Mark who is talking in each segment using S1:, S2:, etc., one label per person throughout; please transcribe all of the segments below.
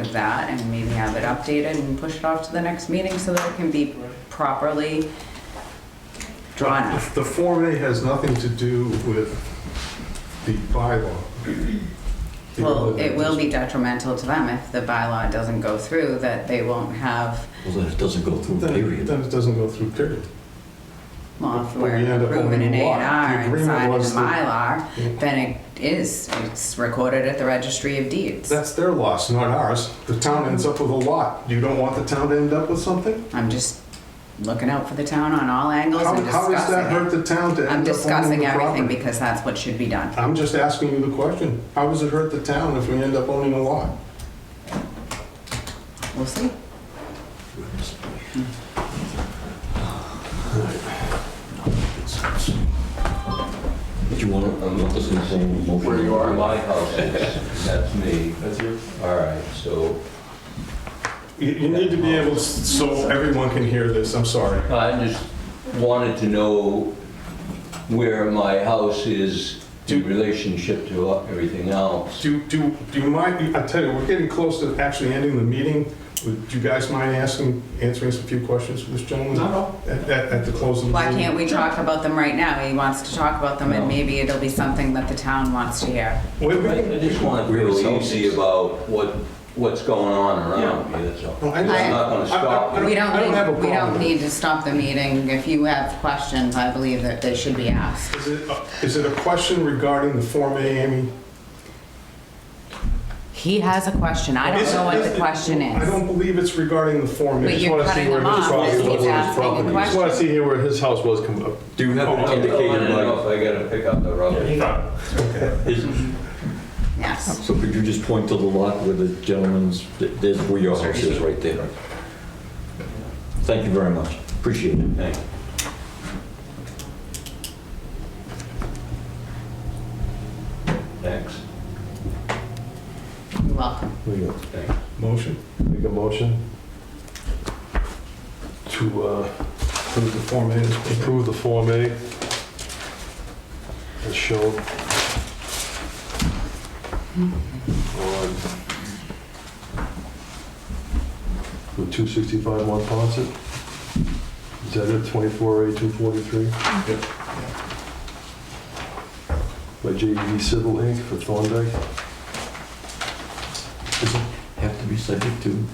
S1: of that and maybe have it updated and push it off to the next meeting so that it can be properly drawn up.
S2: The Form A has nothing to do with the bylaw.
S1: Well, it will be detrimental to them if the bylaw doesn't go through, that they won't have,
S3: Well, then it doesn't go through,
S2: Then it-
S3: period.
S2: then it doesn't go through, period.
S1: well, if
S2: But we
S1: we're
S2: end up
S1: approving
S2: owning
S1: an
S2: the
S1: A
S2: lot.
S1: and R
S2: The
S1: and
S2: agreement
S1: signing a
S2: was Yeah.
S1: Mylar, then it is, it's recorded at the registry of deeds.
S2: That's their loss, not ours. The town ends up with a lot. You don't want the town to end up with something?
S1: I'm just looking out for the town on all angles
S2: How,
S1: and
S2: how does that hurt
S1: discussing it.
S2: the town to
S1: I'm
S2: end up owning
S1: discussing
S2: the
S1: everything
S2: property?
S1: because that's what should be done.
S2: I'm just asking you the question. How does it hurt the town if we end up owning a lot?
S1: We'll see.
S3: Goodness. All right. No, good sense. Did you want to,
S4: I'm not listening to anything.
S3: Where you are?
S4: My house is, that's me. That's you? All right, so,
S2: You, you need to be able, to- so everyone can hear this, I'm sorry.
S4: I just wanted to know where my house is in relationship to everything else.
S2: Do, do, do you mind, I tell you, we're getting close to actually ending the meeting. Would you guys mind asking, answering some few questions for this gentleman? No. At, at at the close of the
S1: Why
S2: meeting?
S1: can't we talk about them right now? He wants to talk about them and maybe it'll be something that the town wants to hear.
S2: Wait,
S4: I
S2: wait.
S4: I just want to
S3: Real
S4: feel
S3: houses.
S4: easy about what, what's going on around me, that's all.
S2: No, I
S4: I'm
S2: just-
S4: not going to stop.
S2: I don't-
S1: We don't,
S2: I don't have a
S1: need- we don't
S2: problem.
S1: need to stop the meeting. If you have questions, I believe that they should be asked.
S2: Is it, uh, is it a question regarding the Form A, Amy?
S1: He has a question. I
S2: Is
S1: don't
S2: it-
S1: know what
S2: is
S1: the
S2: it-
S1: question
S2: I
S1: is.
S2: don't believe it's regarding the Form A.
S1: But
S2: Just
S1: you're
S2: wanna see
S1: cutting
S2: where
S1: them
S2: his
S1: off.
S2: property
S1: Just
S2: was.
S1: keep asking a
S2: Just want to
S1: question.
S2: see here where his house was coming up.
S3: do you have
S2: Oh,
S3: an
S4: I
S3: indicator,
S4: don't know
S3: like,
S4: if I got to pick up the rubber.
S1: Yes.
S3: so could you just point to the lot where the gentleman's, th- there's where your house is, right there? Thank you very much, appreciate it.
S4: Thank you. Thanks,
S1: You're welcome.
S4: thanks.
S2: Motion?
S5: Make a motion to uh,
S2: Approve the Form A. as presented.
S5: approve the Form A as shown on the 265 Mont Ponce. Is that it, 24A 243?
S2: Yep.
S5: By JED Civil Inc. for Thorndike.
S3: Does it have to be subject to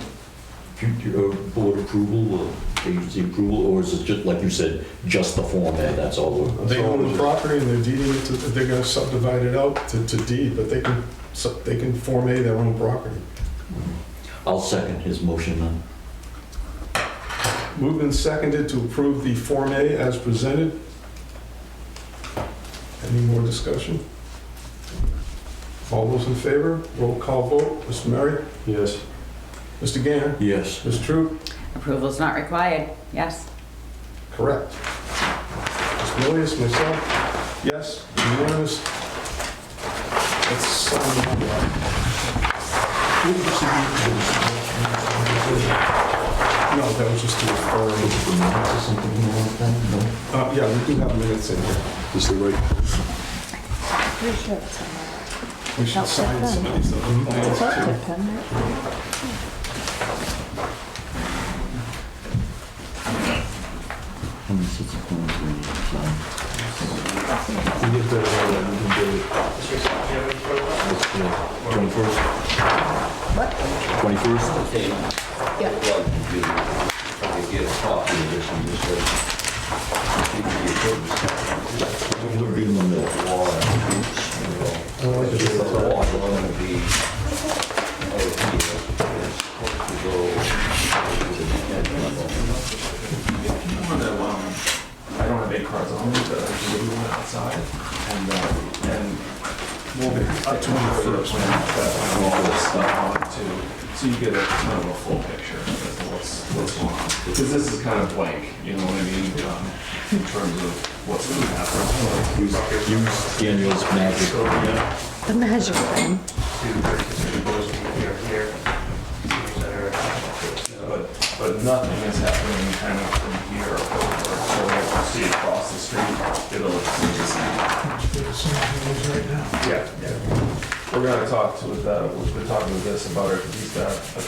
S3: future uh, board approval or agency approval, or is it just, like you said, just the Form A, that's all? we're-
S2: They own the property and they're deeding it to, they're gonna subdivide it out to, to deed, but they can, sub- they can Form A their own property.
S3: I'll second his motion then.
S2: Moved and seconded to approve the Form A as presented. Any more discussion? All those in favor, roll call vote, Mr. Murray,
S5: Yes.
S2: Mr. Gainer,
S3: Yes.
S2: Ms. Troop,
S1: Approval's not required. Yes.
S2: correct. Mr. Milius, myself, yes, unanimous. Let's sign the bylaw. No, that was just the referral. Uh, yeah, we do have minutes in here.
S5: Is the right
S6: Pretty sure it's on
S2: We should sign some of these other things
S6: that.
S2: too.
S6: Tip in there.
S5: You get that, uh, you can do it.
S3: Twenty-first? Twenty-first?
S4: I'd love to do, to get a copy of this and just like, give you a
S3: We'll be in the middle.
S4: good wall and roots, you know. Because the wall is gonna be, oh, here, it's supposed to go to the head level.
S7: I don't have eight cards on me, but I can leave one outside. And, uh, and we'll be up to the first when I roll all this stuff on it too. So you get a kind of a full picture of what's, what's going on. Because this is kind of blank, you know what I mean, um, in terms of what's going to happen.
S3: Use use Daniel's magic.
S6: The measure thing.
S7: But, but nothing is happening kind of from here over. So if you see across the street, it'll look the same. Yeah, yeah. We're gonna talk to, with, uh, we're talking with this about our, these, uh,